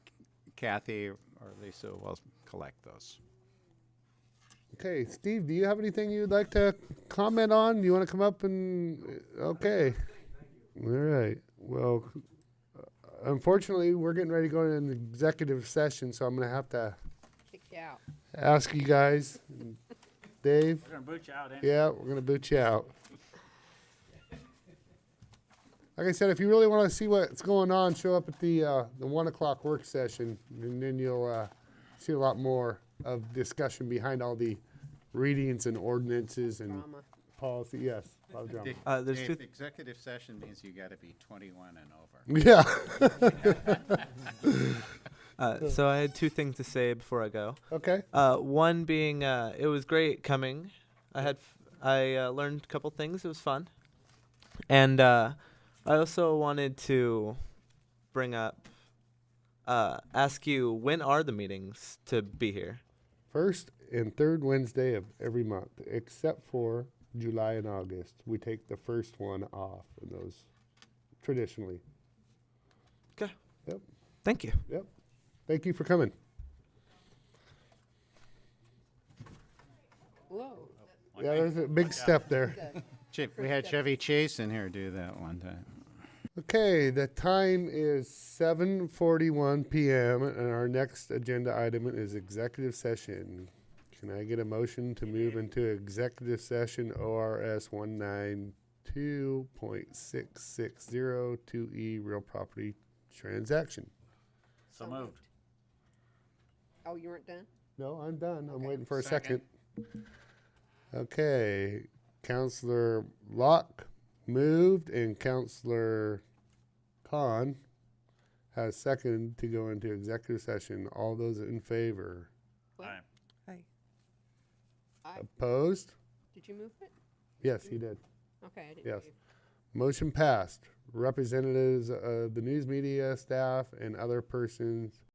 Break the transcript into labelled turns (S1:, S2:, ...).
S1: Kathy or Lisa will collect those.
S2: Okay, Steve, do you have anything you'd like to comment on? You want to come up and okay. All right. Well, unfortunately, we're getting ready to go into an executive session, so I'm going to have to
S3: Kick you out.
S2: ask you guys, Dave.
S4: We're gonna boot you out, eh?
S2: Yeah, we're gonna boot you out. Like I said, if you really want to see what's going on, show up at the uh, the one o'clock work session, and then you'll uh, see a lot more of discussion behind all the readings and ordinances and
S3: Drama.
S2: policy. Yes, a lot of drama.
S5: Uh, there's
S1: Dave,
S5: two-
S1: Executive session means you gotta be twenty-one and over.
S2: Yeah.
S5: Uh, so I had two things to say before I go.
S2: Okay.
S5: Uh, one being, uh, it was great coming. I had, f- I uh, learned a couple things. It was fun, and uh, I also wanted to bring up, uh, ask you when are the meetings to be here?
S2: First and third Wednesday of every month, except for July and August. We take the first one off of those traditionally.
S5: Okay.
S2: Yep.
S5: Thank you.
S2: Yep. Thank you for coming.
S3: Whoa.
S2: Yeah, there's a big step there.
S1: Che- We had Chevy Chase in here do that one time.
S2: Okay, the time is 7:41 p.m. and our next agenda item is executive session. Can I get a motion to move into executive session ORS 192.6602E E, real property transaction?
S4: So moved.
S3: Oh, you weren't done?
S2: No, I'm done. I'm waiting for a second. Okay, Counselor Locke moved and Counselor Khan has seconded to go into executive session. All those in favor?
S3: What?
S4: Aye.
S3: Aye.
S2: Opposed?
S3: Did you move it?
S2: Yes, he did.
S3: Okay, I didn't.
S2: Yes.
S3: hear you.
S2: Motion passed. Representatives of the news media, staff, and other persons